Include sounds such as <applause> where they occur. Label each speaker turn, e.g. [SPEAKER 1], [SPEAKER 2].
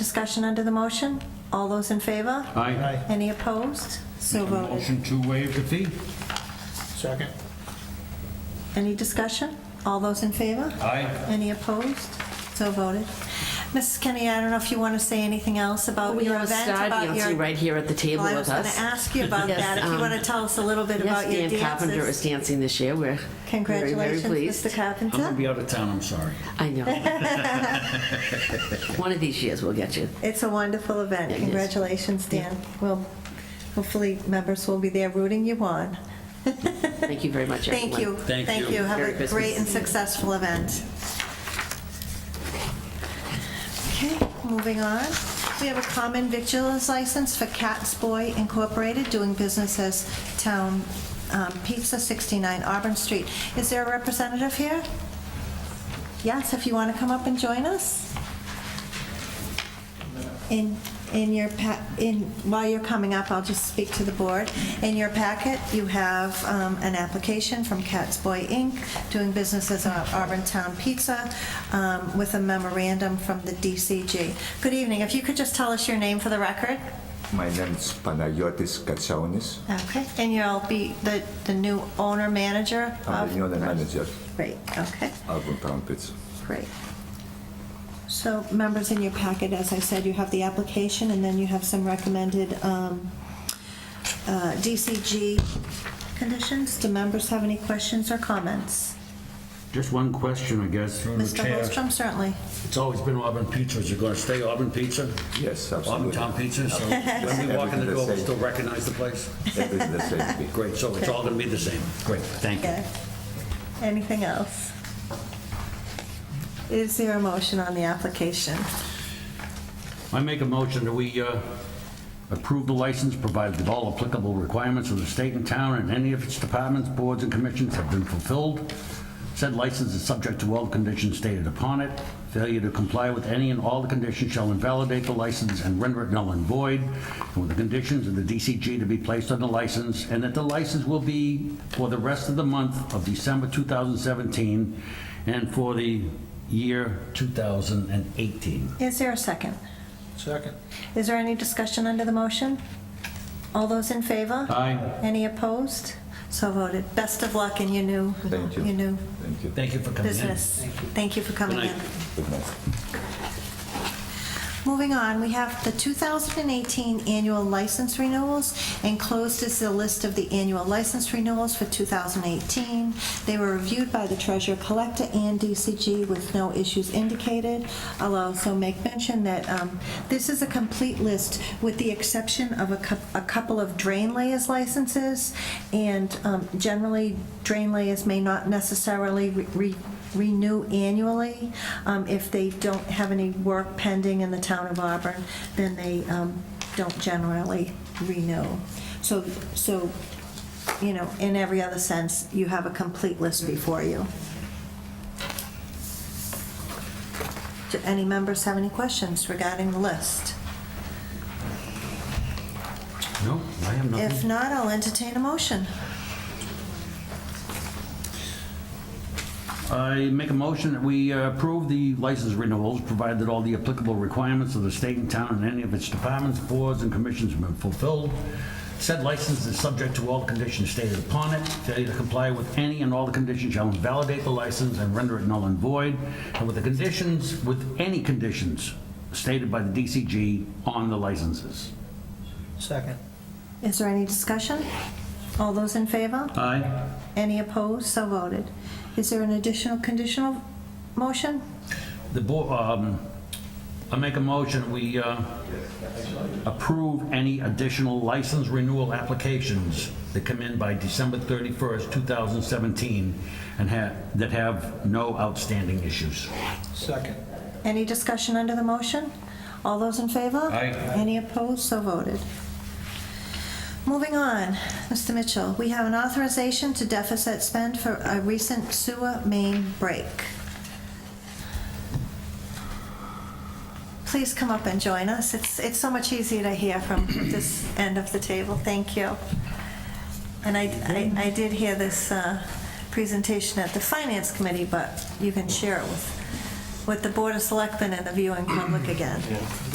[SPEAKER 1] Discussion under the motion? All those in favor?
[SPEAKER 2] Aye.
[SPEAKER 1] Any opposed? So voted.
[SPEAKER 3] Motion to waive the fee.
[SPEAKER 2] Second.
[SPEAKER 1] Any discussion? All those in favor?
[SPEAKER 3] Aye.
[SPEAKER 1] Any opposed? So voted. Mrs. Kenny, I don't know if you want to say anything else about
[SPEAKER 4] We
[SPEAKER 1] your
[SPEAKER 4] have Oh, a
[SPEAKER 1] event?
[SPEAKER 4] star
[SPEAKER 1] about
[SPEAKER 4] dancer
[SPEAKER 1] your-
[SPEAKER 4] right here at the table
[SPEAKER 1] Well, I
[SPEAKER 4] with us.
[SPEAKER 1] was going to ask you about
[SPEAKER 4] Yes,
[SPEAKER 1] that, if you
[SPEAKER 4] um,
[SPEAKER 1] want to tell us a little bit about your
[SPEAKER 4] Yes, Dan Carpenter is
[SPEAKER 1] dances.
[SPEAKER 4] dancing this year. We're very, very
[SPEAKER 1] Congratulations,
[SPEAKER 4] pleased.
[SPEAKER 1] Mr.
[SPEAKER 3] I'm gonna
[SPEAKER 1] Carpenter.
[SPEAKER 3] be out of town, I'm sorry.
[SPEAKER 4] I
[SPEAKER 1] <laughs>
[SPEAKER 4] know. <laughs> One of these years we'll get you.
[SPEAKER 1] It's a wonderful event.
[SPEAKER 4] Yeah, it is.
[SPEAKER 1] Congratulations, Dan. Well, hopefully members will be there rooting you on.
[SPEAKER 4] Thank you very much, everyone.
[SPEAKER 1] Thank you.
[SPEAKER 3] Thank you.
[SPEAKER 1] Have
[SPEAKER 4] Merry
[SPEAKER 1] a
[SPEAKER 4] Christmas.
[SPEAKER 1] great and successful event. Okay, moving on. We have a common victuals license for Cat's Boy Incorporated, doing business as Town um, Pizza, 69 Auburn Street. Is there a representative here? Yes, if you want to come up and join us. In, in your, pa- in, while you're coming up, I'll just speak to the board. In your packet, you have um, an application from Cat's Boy Inc., doing business as Au- Auburn Town Pizza, um, with a memorandum from the DCG. Good evening. If you could just tell us your name for the record?
[SPEAKER 5] My name is Panayotis Katsaonis.
[SPEAKER 1] Okay. And you'll be the, the new owner, manager
[SPEAKER 5] I'm
[SPEAKER 1] of?
[SPEAKER 5] the union manager
[SPEAKER 1] Great, okay.
[SPEAKER 5] of Town Pizza.
[SPEAKER 1] Great. So, members, in your packet, as I said, you have the application, and then you have some recommended um, uh, DCG conditions. Do members have any questions or comments?
[SPEAKER 2] Just one question, I guess.
[SPEAKER 1] Mr. Holstrom, certainly.
[SPEAKER 3] It's always been Auburn Pizza. Is it gonna stay Auburn Pizza?
[SPEAKER 5] Yes,
[SPEAKER 3] Auburn
[SPEAKER 5] absolutely.
[SPEAKER 3] Town Pizza, so when we walk in the door, we still recognize the place?
[SPEAKER 5] Everything the same thing.
[SPEAKER 3] Great, so it's all gonna be the same. Great, thank you.
[SPEAKER 1] Okay. Anything else? Is there a motion on the application?
[SPEAKER 2] I make a motion that we uh, approve the license, provided that all applicable requirements of the state and town and any of its departments, boards, and commissions have been fulfilled. Said license is subject to all the conditions stated upon it. Failure to comply with any and all the conditions shall invalidate the license and render it null and void, and with the conditions of the DCG to be placed on the license, and that the license will be for the rest of the month of December 2017 and for the year 2018.
[SPEAKER 1] Is there a second?
[SPEAKER 2] Second.
[SPEAKER 1] Is there any discussion under the motion? All those in favor?
[SPEAKER 5] Uh.
[SPEAKER 2] Aye.
[SPEAKER 1] Any opposed? So voted. Best of luck in your new,
[SPEAKER 5] Thank you.
[SPEAKER 1] your new
[SPEAKER 5] Thank you.
[SPEAKER 3] Thank you for coming in.
[SPEAKER 1] business. Thank you for coming
[SPEAKER 3] Good
[SPEAKER 1] in.
[SPEAKER 3] night.
[SPEAKER 5] Good night.
[SPEAKER 1] Moving on, we have the 2018 annual license renewals. Enclosed is the list of the annual license renewals for 2018. They were reviewed by the treasurer collector and DCG with no issues indicated. I'll also make mention that um, this is a complete list with the exception of a cou- a couple of drain layers licenses. And um, generally, drain layers may not necessarily re- re- renew annually. Um, If they don't have any work pending in the town of Auburn, then they um, don't generally renew. So, so, you know, in every other sense, you have a complete list before you. Do any members have any questions regarding the list?
[SPEAKER 2] No, I have nothing.
[SPEAKER 1] If not, I'll entertain a motion.
[SPEAKER 2] I make a motion that we uh, approve the license renewals, provided that all the applicable requirements of the state and town and any of its departments, boards, and commissions have been fulfilled. Said license is subject to all conditions stated upon it. Failure to comply with any and all the conditions shall invalidate the license and render it null and void, and with the conditions, with any conditions stated by the DCG on the licenses.
[SPEAKER 6] Second.
[SPEAKER 1] Is there any discussion? All those in favor?
[SPEAKER 2] Aye.
[SPEAKER 1] Any opposed? So voted. Is there an additional conditional motion?
[SPEAKER 2] The board, um, I make a motion, we, uh, approve any additional license renewal applications that come in by December 31st, 2017, and have, that have no outstanding issues.
[SPEAKER 6] Second.
[SPEAKER 1] Any discussion under the motion? All those in favor?
[SPEAKER 2] Aye.
[SPEAKER 1] Any opposed? So voted. Moving on, Mr. Mitchell, we have an authorization to deficit spend for a recent sewer main break. Please come up and join us. It's, it's so much easier to hear from this end of the table. Thank you. And I, I, I did hear this uh, presentation at the Finance Committee, but you can share it with, with the Board of Selectmen and the viewing public again.